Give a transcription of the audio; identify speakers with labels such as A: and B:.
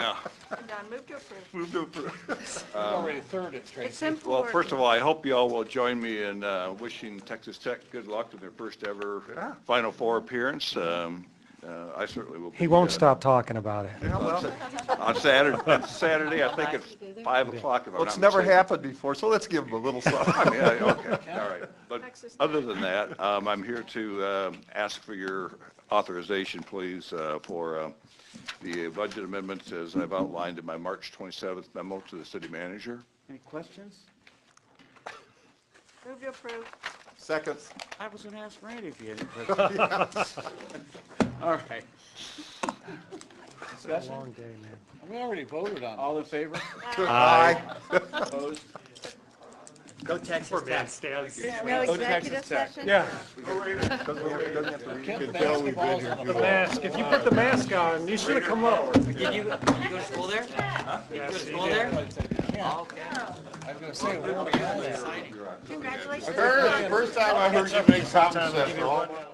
A: Yeah,
B: Don, move to approve.
A: move to approve.
C: We've already thirded it,
B: It's
C: Tracy.
A: Well,
B: important.
A: first of all, I hope you all will join me in uh, wishing Texas Tech good luck in their first ever Final Four appearance. Um, uh, I certainly will.
D: He
A: be,
D: won't
A: uh,
D: stop talking about it.
E: Yeah, well,
A: On Saturday, Saturday, I think it's five o'clock. if I'm
E: well, it's
A: not
E: never
A: mistaken.
E: happened before, so let's give them a little
A: I mean,
E: something.
A: I- okay, all right. But
B: Texas Tech.
A: other than that, um, I'm here to um, ask for your authorization, please, uh, for uh, the budget amendments as I've outlined in my March 27th memo to the city manager.
F: Any questions?
B: Move to approve.
E: Second,
F: I was going to ask Randy if he had any questions. All right.
D: It's a
F: Discussion?
D: long day, man.
C: We already voted on it.
F: All in favor?
E: aye.
F: Opposed? Go Texas Tech.
B: No
F: Go to Texas Tech.
G: Yeah,
E: Doesn't have- doesn't have to read.
C: Kent basketball's on the
G: mask. If you put the mask on, you should have come up.
H: Did you, you go to school there? Did you go to school there? Oh, Okay.
C: I was going to say, we already had that.
B: Congratulations.
E: First time I heard you make common sense,